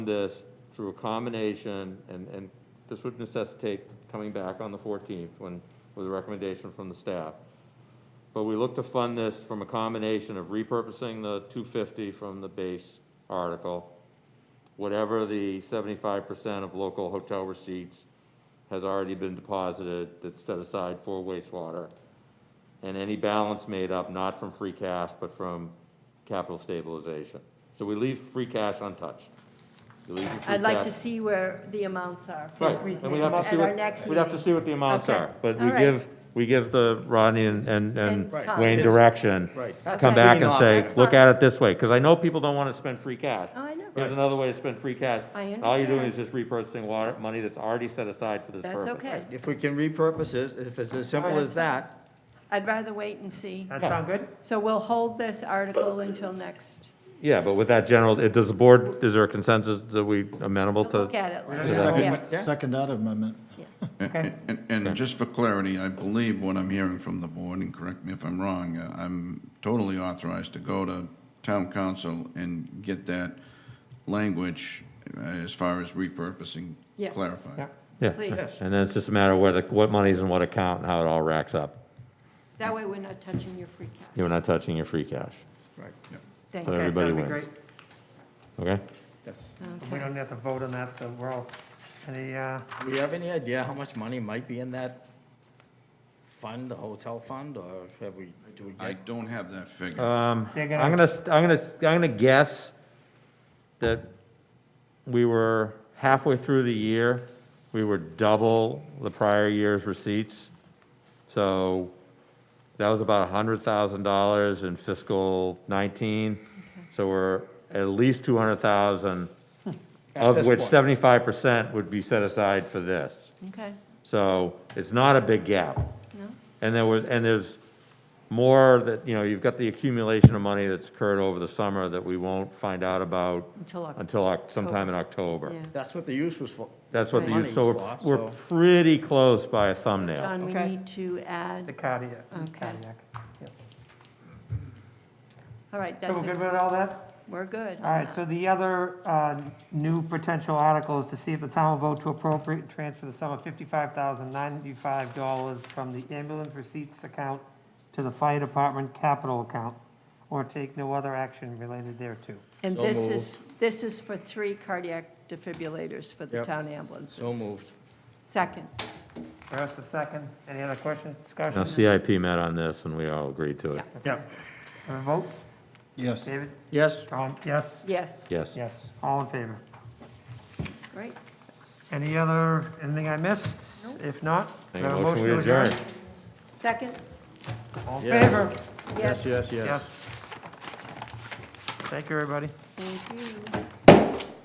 this through a combination, and, and this would necessitate coming back on the 14th when, with a recommendation from the staff. But we look to fund this from a combination of repurposing the 250 from the base article, whatever the 75% of local hotel receipts has already been deposited that's set aside for wastewater, and any balance made up not from free cash, but from capital stabilization. So we leave free cash untouched. We leave the free I'd like to cash- see where the amounts are. Right, and we have to see At our what, next we'd have to meeting. see what the amounts Okay. are, but we All right. give, we give the Rodney and, and and And Tom. Wayne It's- direction. right. Come back and say, That's look fine. at it this way, because I know people don't want to spend free cash. Oh, I know. Here's Right. another way to spend free cash. I All you're doing understand. is just repurchasing water, money that's already set aside for this purpose. That's okay. If we can repurpose it, if it's as simple as that, I'd rather wait and see. That sound good? So we'll hold this article until next, Yeah, but with that general, it- does the board, is there a consensus that we amenable to to? look at it. later. Yes, Yeah. Second, second that amendment. yes. Okay. And, and just for clarity, I believe what I'm hearing from the board, and correct me if I'm wrong, uh, I'm totally authorized to go to town council and get that language uh, as far as repurposing Yes. clarified. Yeah, Please. and then it's just a matter of what, what money's in what account and how it all racks up. That way we're not touching your free cash. You're not touching your free cash, right, Thank So you. everybody Okay, wins. that'd be okay? yes. great. We don't have to vote on that, so we're all, any, uh, Do we have any idea how much money might be in that fund, the hotel fund, or have we, do we I get? don't have that Uh, figure. Um, They're I'm gonna- gonna, st- I'm gonna, I'm gonna guess that we were halfway through the year, we were double the prior year's receipts. So that was about hundred thousand dollars in fiscal nineteen. So we're at least two hundred thousand, At of this which point. seventy-five percent would be set aside for this. Okay, So it's not a big gap. no, And there was, and there's more that, you know, you've got the accumulation of money that's occurred over the summer that we won't find out about until, Oc- until oc- sometime in October. yeah. That's what the use was for. That's what the, use- so we're, Money's we're lost, pretty close by a thumbnail. John, we Okay. need to the add, cardiac? Okay. cardiac, yeah. all right, So that's, we're good it. with all that? we're good. on All right, that. so the other uh, new potential article is to see if the town will vote to appropriate and transfer the sum of $55,095 from the ambulance receipts account to the fire department capital account, or take no other action related thereto. And So this is, this is for three cardiac defibrillators for the Yep. town ambulances. So moved. Second, First, a second, any other questions, discussion? Now, CIP met on this and we all agreed to it. Yes. Have a vote, Yes. David? Yes, Tom, yes? yes, Yes. Yes, all in favor. great. Any other, anything I missed? If not, do I Make have a a Uh, motion, we adjourn. Second, All in Yes. favor? yes. yes, yes, yes. Yes. Thank you, everybody. Thank you.